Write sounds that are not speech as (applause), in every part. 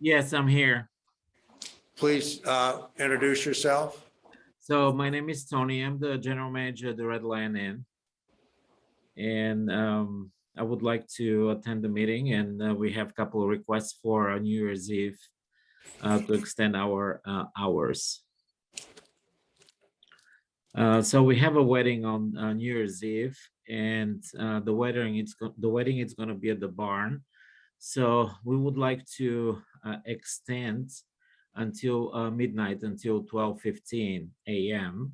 Yes, I'm here. Please uh, introduce yourself. So my name is Tony. I'm the general manager at the Red Lion Inn. And um, I would like to attend the meeting and uh, we have a couple of requests for uh, New Year's Eve uh, to extend our uh, hours. Uh, so we have a wedding on uh, New Year's Eve and uh, the wedding, it's, go- the wedding is gonna be at the barn. So we would like to uh, extend until uh, midnight until 12:15 a.m.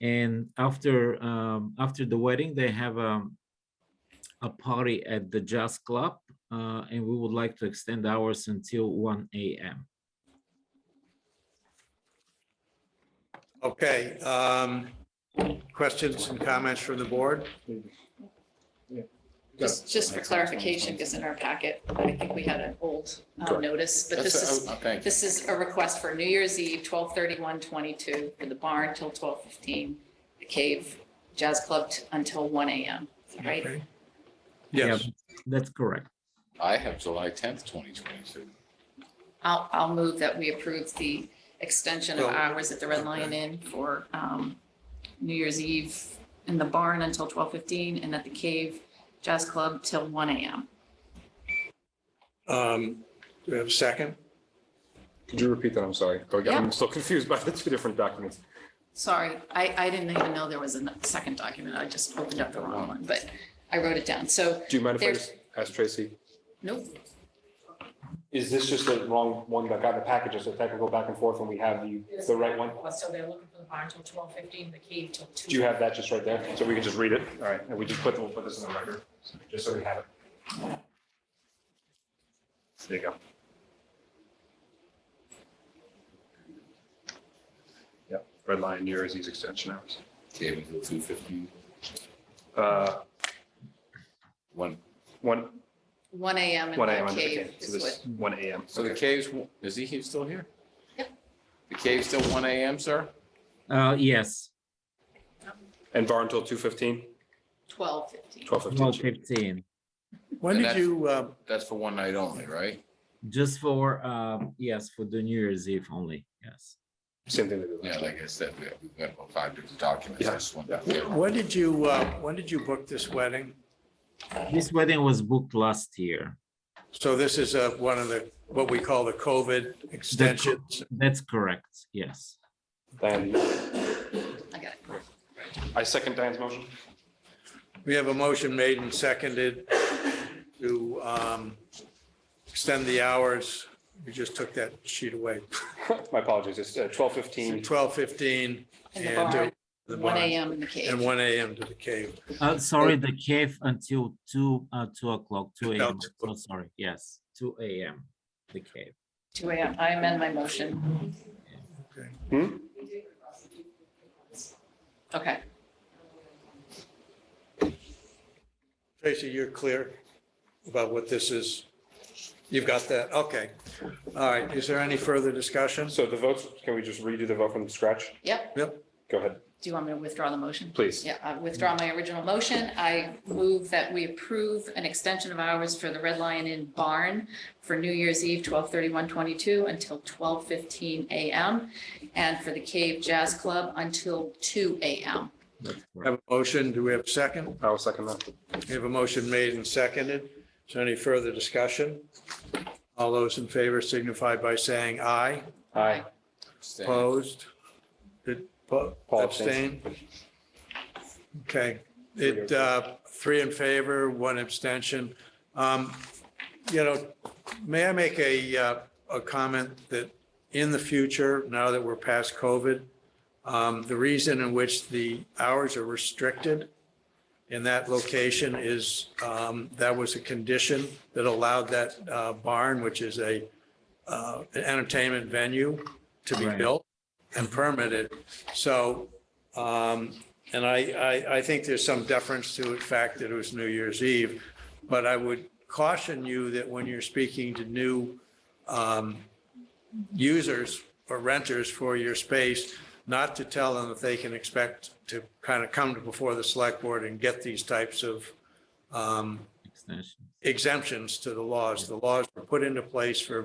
And after um, after the wedding, they have a a party at the Jazz Club, uh, and we would like to extend hours until 1 a.m. Okay. um, Questions and comments from the board? Just, just for clarification, because in our packet, I think we had an old um, Correct. notice, but this That's- is, oh, Thank you. this is a request for New Year's Eve, twelve thirty-one twenty-two, for the barn till twelve fifteen, the cave jazz club t- until one AM, right? Okay. Yeah, Yes, That's correct. I have July tenth, twenty twenty-two. I'll, I'll move that we approve the extension of Oh. Well, hours at the Red Lion Inn for um, New Year's Eve in the barn until twelve fifteen, and at the cave jazz club till one AM. Um, do we have a second? Could you repeat that? I'm sorry. Go again. Yeah. I'm still confused by (laughs) the two different documents. Sorry, I, I didn't even know there was a second document. I just opened up the wrong one, but I wrote it down. So, Do you mind if I There- just ask Tracy? nope, Is this just the wrong one that got in the package? It's a technical back and forth and we have the, the right one? So they're looking for the barn till twelve fifteen, the cave till two. Do you have that just right there? So we can just read it? All right. And we just put, we'll put this in the record, just so we have it. There you go. Yep, red line, New Year's Eve extension hours. Cave until two fifteen, Uh, one. one, one AM in one AM the under the cave cave. So is this, what, one AM. So the Okay. cave's, w- is he, he's still here? Yep. The cave's still one AM, sir? Uh, yes, And bar until two fifteen? twelve fifteen. Twelve fifteen. 12:15, When And did that's- you, uh, That's for one night only, right? just for um, yes for the New Year's Eve only. Yes. Same thing they did Yeah, last like I said, we- we've got about five different documents. I Yeah, just yeah. wanted to clarify. when did you, uh, when did you book this wedding? This wedding was booked last year. So this is uh, one of the, what we call the COVID extensions. That's correct. Yes. Diane, I got it. I second Diane's motion. We have a motion made and seconded to um, extend the hours. We just took that sheet away. (laughs) My apologies, it's uh, twelve fifteen. 12:15 In the and barn, to the One barn AM in the and cave. 1 AM to the cave. Uh, sorry, the cave until two, uh, two o'clock, two Until AM, two so sorry, yes, two AM, the cave. Two AM. I amend my motion. Hmm? Okay, Tracy, you're clear about what this is? You've got that? Okay. All right. Is there any further discussion? So the votes, can we just redo the vote from scratch? yep. Go ahead, Do you want me to withdraw the motion? please. Yeah, I withdraw my original motion. I move that we approve an extension of hours for the Red Lion Inn Barn for New Year's Eve, 22 until twelve fifteen AM, and for the Cave Jazz Club until two AM. That's correct. Have a motion? Do we have a second? I will second that. We have a motion made and seconded. Is there any further discussion? All those in favor signify by saying aye. Aye. Stay. Opposed? Did po- Paul abstain? Okay, it, uh, three in favor, one abstention. Um, You know, may I make a, uh, a comment that in the future, now that we're past COVID, um, the reason in which the hours are restricted in that location is, um, that was a condition that allowed that uh, barn, which is a, uh, an entertainment venue to be Right. built and permitted. So, um, and I, I, I think there's some deference to the fact that it was New Year's Eve. But I would caution you that when you're speaking to new um, users or renters for your space, not to tell them that they can expect to kind of come to before the select board and get these types of um, Extension. exemptions to the laws. The laws were put into place for a